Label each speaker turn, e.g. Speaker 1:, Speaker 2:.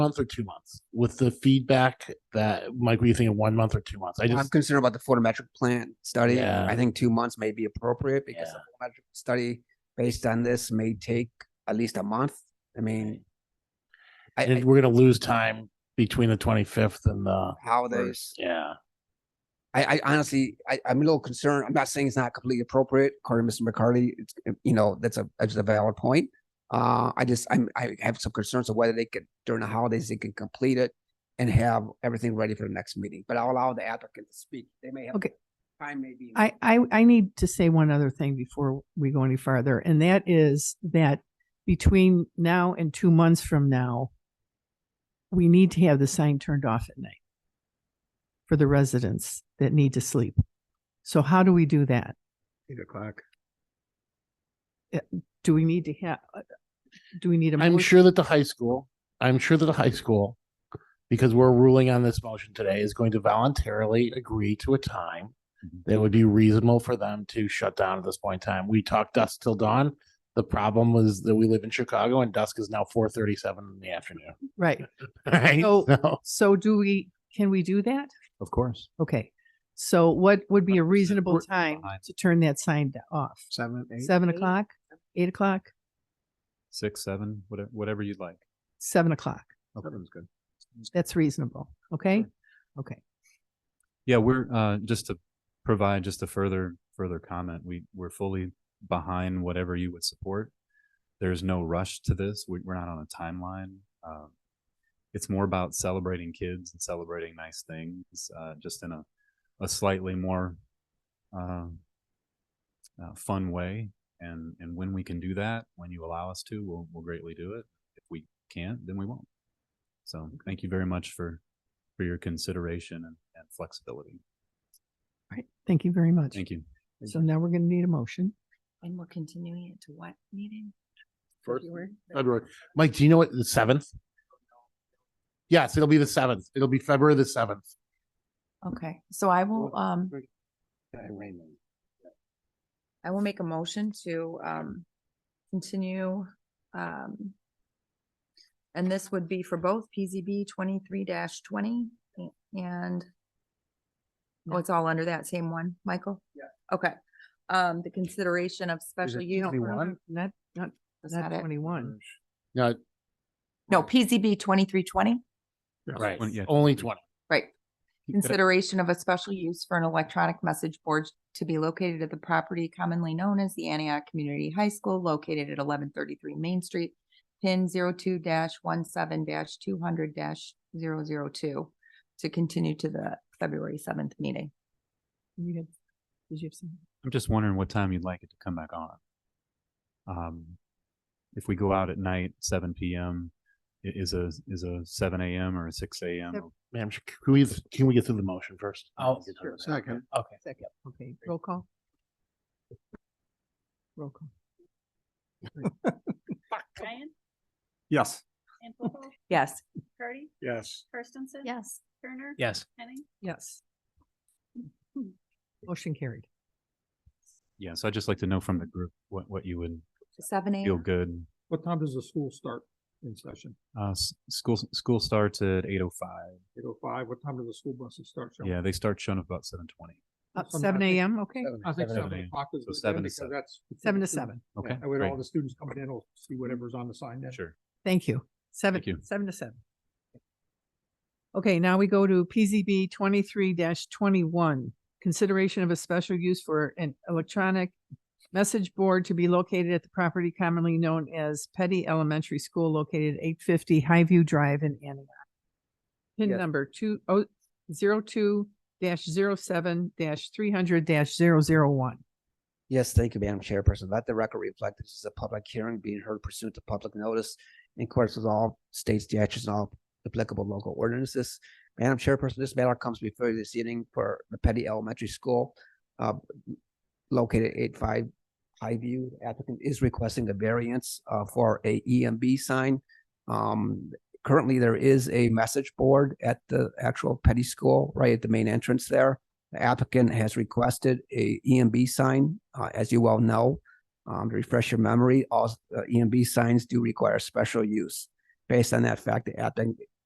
Speaker 1: month or two months with the feedback that Mike, what do you think of one month or two months? I
Speaker 2: I'm
Speaker 1: just,
Speaker 2: concerned about the photometric plan study.
Speaker 1: Yeah.
Speaker 2: I think two months may be appropriate because the photometric study based on this may take at least a month. I mean, I,
Speaker 1: and
Speaker 2: I,
Speaker 1: we're gonna lose time between the twenty fifth and the
Speaker 2: how they,
Speaker 1: first. Yeah,
Speaker 2: I, I honestly, I, I'm a little concerned. I'm not saying it's not completely appropriate, according to Mr. McCarty. It's, you know, that's a, that's a valid point. Uh, I just, I'm, I have some concerns of whether they could, during the holidays, they can complete it and have everything ready for the next meeting, but I'll allow the applicant to speak. They may have.
Speaker 3: Okay.
Speaker 2: Time may be.
Speaker 3: I, I, I need to say one other thing before we go any farther, and that is that between now and two months from now, we need to have the sign turned off at night for the residents that need to sleep. So how do we do that? Eh,
Speaker 2: Eight o'clock.
Speaker 3: Do we need to have, do we need a?
Speaker 1: I'm
Speaker 3: motion?
Speaker 1: sure that the high school, I'm sure that the high school, because we're ruling on this motion today, is going to voluntarily agree to a time that would be reasonable for them to shut down at this point in time. We talked dusk till dawn. The problem was that we live in Chicago and dusk is now four thirty seven in the afternoon.
Speaker 3: Right.
Speaker 1: Right?
Speaker 3: So-
Speaker 1: So-
Speaker 3: So do we, can we do that?
Speaker 4: Of course.
Speaker 3: Okay. So what would be a reasonable
Speaker 4: We're-
Speaker 3: time
Speaker 4: Fine.
Speaker 3: to turn that sign off?
Speaker 4: Seven,
Speaker 3: Seven o'clock, eight o'clock,
Speaker 4: Six, seven, whatever, whatever you'd like.
Speaker 3: seven o'clock?
Speaker 4: Sounds good.
Speaker 3: That's reasonable. Okay? Okay.
Speaker 4: Yeah, we're, uh, just to provide just a further, further comment, we, we're fully behind whatever you would support. There's no rush to this. We, we're not on a timeline. Um, it's more about celebrating kids and celebrating nice things, uh, just in a, a slightly more, um, uh, fun way. And, and when we can do that, when you allow us to, we'll, we'll greatly do it. If we can't, then we won't. So thank you very much for, for your consideration and, and flexibility.
Speaker 3: All right. Thank you very much.
Speaker 4: Thank you.
Speaker 3: So now we're going to need a motion.
Speaker 5: And we're continuing it to what meeting?
Speaker 1: First
Speaker 5: February?
Speaker 1: February. Mike, do you know what the seventh? Yes, it'll be the seventh. It'll be February the seventh.
Speaker 5: Okay, so I will, um,
Speaker 2: Raymond.
Speaker 5: I will make a motion to, um, continue, um, and this would be for both PZB twenty-three twenty and oh, it's all under that same one, Michael?
Speaker 2: Yeah.
Speaker 5: Okay, um, the consideration of special
Speaker 1: it
Speaker 5: use.
Speaker 1: 21?
Speaker 3: Um, Not, not,
Speaker 5: That's
Speaker 3: not
Speaker 5: not it.
Speaker 3: twenty-one.
Speaker 4: Mm.
Speaker 1: No,
Speaker 5: No, PZB twenty-three twenty,
Speaker 1: right.
Speaker 4: Twenty- yeah,
Speaker 1: Only
Speaker 4: 23.
Speaker 1: twenty.
Speaker 5: right.
Speaker 4: You gotta-
Speaker 5: Consideration of a special use for an electronic message board to be located at the property commonly known as the Antioch Community High School located at eleven thirty-three Main Street, pin 2 one two hundred 2 to continue to the February seventh meeting.
Speaker 3: You had, did you have some?
Speaker 4: I'm just wondering what time you'd like it to come back on. Um, if we go out at night, seven PM, i- is a, is a seven AM or a six
Speaker 3: Yep.
Speaker 4: AM?
Speaker 1: Ma'am, sh- can we, can we get through the motion first?
Speaker 2: Oh,
Speaker 1: Get through
Speaker 2: sure.
Speaker 1: that.
Speaker 2: Second.
Speaker 1: Okay.
Speaker 3: Second. Okay, roll call. Roll call.
Speaker 6: Ryan?
Speaker 4: Yes.
Speaker 6: Sample?
Speaker 5: Yes.
Speaker 6: Cardy?
Speaker 1: Yes.
Speaker 6: Kirstensen?
Speaker 5: Yes.
Speaker 6: Turner?
Speaker 1: Yes.
Speaker 6: Henning?
Speaker 3: Yes. Motion carried.
Speaker 4: Yeah, so I'd just like to know from the group what, what you would
Speaker 5: Seven
Speaker 4: feel
Speaker 5: AM.
Speaker 4: good.
Speaker 7: What time does the school start in session?
Speaker 4: Uh, s- school, school starts at eight oh five.
Speaker 7: Eight oh five? What time do the school buses start? Sean?
Speaker 4: Yeah, they start showing up about seven twenty.
Speaker 3: Up
Speaker 7: Sometime
Speaker 3: seven
Speaker 7: I think-
Speaker 3: AM, okay,
Speaker 7: I think
Speaker 4: Seven to
Speaker 7: seven
Speaker 4: eight.
Speaker 7: o'clock is
Speaker 4: So
Speaker 7: good
Speaker 4: seven to
Speaker 7: then because
Speaker 4: seven.
Speaker 7: that's. before
Speaker 3: seven
Speaker 7: the
Speaker 3: to
Speaker 7: students-
Speaker 3: seven.
Speaker 4: Okay,
Speaker 7: That way all
Speaker 4: great.
Speaker 7: the students coming in will see whatever's on the sign then.
Speaker 4: Sure.
Speaker 3: Thank you. Seven,
Speaker 4: Thank you.
Speaker 3: seven to seven. Okay, now we go to PZB twenty-three twenty-one. Consideration of a special use for an electronic message board to be located at the property commonly known as Petty Elementary School located eight fifty Highview Drive in Antioch. Pin
Speaker 2: Yes.
Speaker 3: number two oh zero two dash zero seven dash three hundred dash zero zero one.
Speaker 2: Yes, thank you, Madam Chairperson. Let the record reflect this is a public hearing being heard pursuant to public notice in accordance with all state statutes and all applicable local ordinances. Madam Chairperson, this matter comes before you this evening for the Petty Elementary School uh, located eight five Highview. Applicant is requesting a variance uh, for a EMB sign. Um, Currently, there is a message board at the actual Petty School, right at the main entrance there. The applicant has requested a EMB sign, uh, as you well E know. Um, to refresh your memory, all, s- uh, EMB signs do require special use. based on that fact, the app then